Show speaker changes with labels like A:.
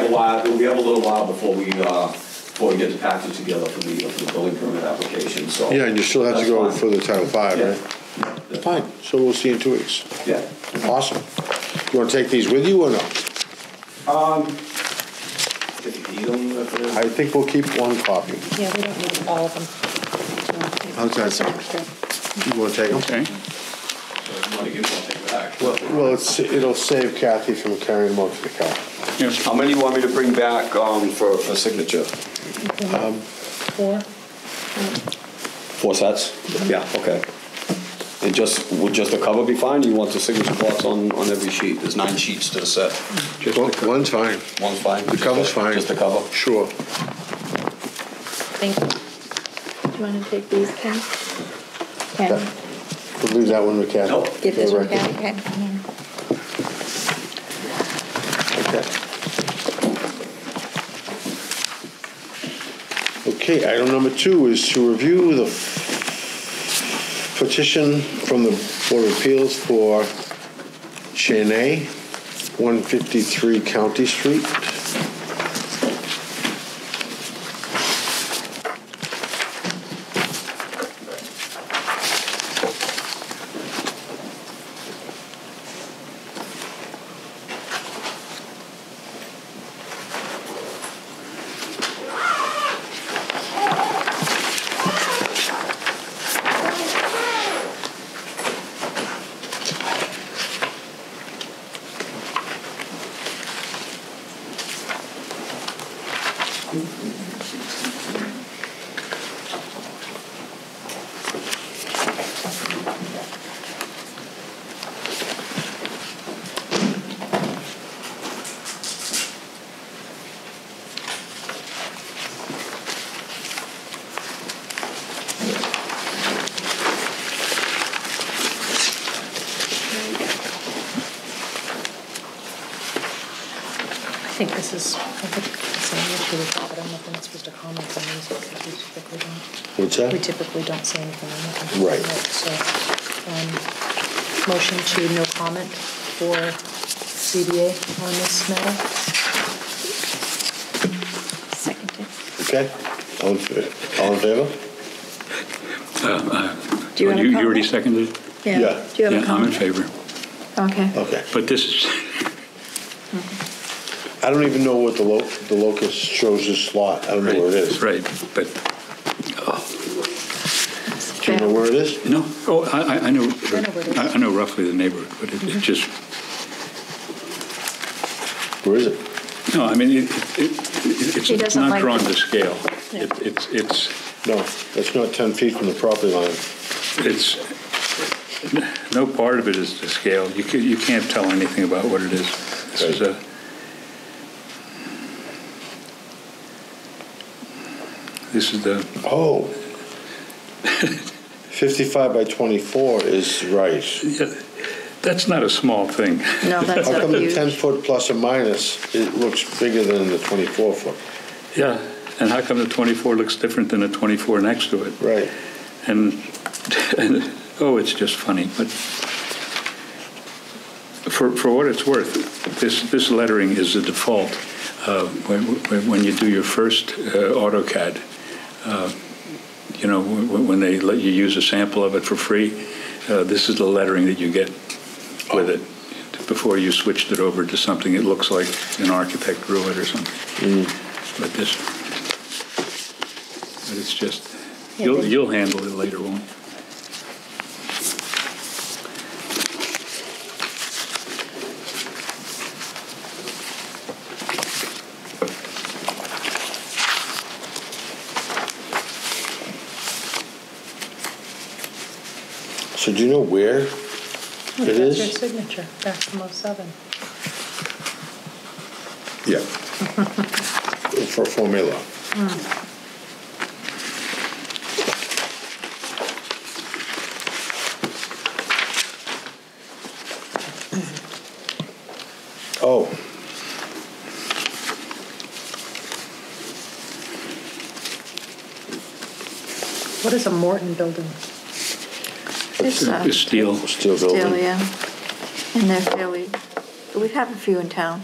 A: while, we have a little while before we, uh, before we get the package together for the, for the building permit application, so.
B: Yeah, and you still have to
A: That's
B: go
A: fine.
B: for the Title V,
A: Yeah.
B: right? Fine, so we'll see you in two weeks.
A: Yeah.
B: Awesome. You wanna take these with you or no?
A: If you need them, if it is-
B: I think we'll keep one copy.
C: Yeah, we don't need all of them.
B: How's that sound?
C: Extra.
B: You wanna take them?
D: Okay.
A: if uh, you want to give, I'll take it back.
B: Well, well, it's, it'll save Kathy from carrying them up to the car.
D: Yes. Oh,
A: How many you want me to bring back, um, for, for signature?
C: Four.
A: Four sets? Yeah, okay. And just, would just the cover be fine? You want the signature blocks on, on every sheet? There's nine sheets to the set.
B: One- One time,
A: One's fine?
B: the cover's fine.
A: Just the cover?
B: Sure.
C: Thank you. Do you want to take these, Ken? Ken,
B: We'll leave that one with Kathy.
A: Nope.
C: give this one,
B: Okay.
C: Ken, okay?
B: Okay, item number two is to review the petition from the Board of Appeals for Cheney, 153 County Street.
C: I think this is, I think it's the same issue with that, but I'm not, not supposed to comment on these because we typically don't.
B: What's
C: We
B: that?
C: typically don't say anything on that.
B: Right.
C: So, um, motion to no comment for CBA on this matter.
E: Seconded.
B: Okay. All in fa- all in favor?
E: Do you
D: Oh,
E: have a
D: You already
E: comment?
D: seconded? it?
B: Yeah.
E: Do you have a
D: Yeah, I'm in
E: comment?
D: favor.
E: Okay.
B: Okay.
D: But this is,
B: I don't even know what the lo, the locus shows this lot. I don't know where it is.
D: right, but,
B: Do you know where it is?
D: no, oh, I, I- I know,
C: I know where it is.
D: I I know roughly the neighborhood, but it-
E: Mm-hmm.
D: it just,
B: Where is it?
D: no, I mean, it, it- it-
E: He
D: it's
E: doesn't
D: not
E: like
D: drawn
E: it.
D: to scale. It- It's, it's,
B: No, it's not 10 feet from the property line.
D: it's, no part of it is to scale. You can't, you can't tell anything about what it is. This is a, this is the,
B: Oh. 55 by 24 is right.
D: yeah, that's not a small thing.
E: No, that's
B: How
E: a
B: come the
E: huge.
B: 10 foot plus or minus, it looks bigger than the 24 foot?
D: Yeah, and how come the 24 looks different than the 24 next to it?
B: Right.
D: And, and, oh, it's just funny, but for, for what it's worth, this, this lettering is the default. uh, When, when- when you do your first uh, AutoCAD, uh, you know, when when they let you use a sample of it for free, uh, this is the lettering that you get with it before you switched it over to something that looks like an architect drew it or something. But this, but it's just,
C: Yeah,
D: you'll,
C: they-
D: you'll handle it later, won't you?
B: So do you know where it
C: That's your
B: is?
C: signature, back from '07.
B: Yeah. For formula. Oh.
C: What is a Morton building?
E: It's uh,
D: It's steel.
B: Still
E: still,
B: building.
E: yeah. And they're fairly, we have a few in town.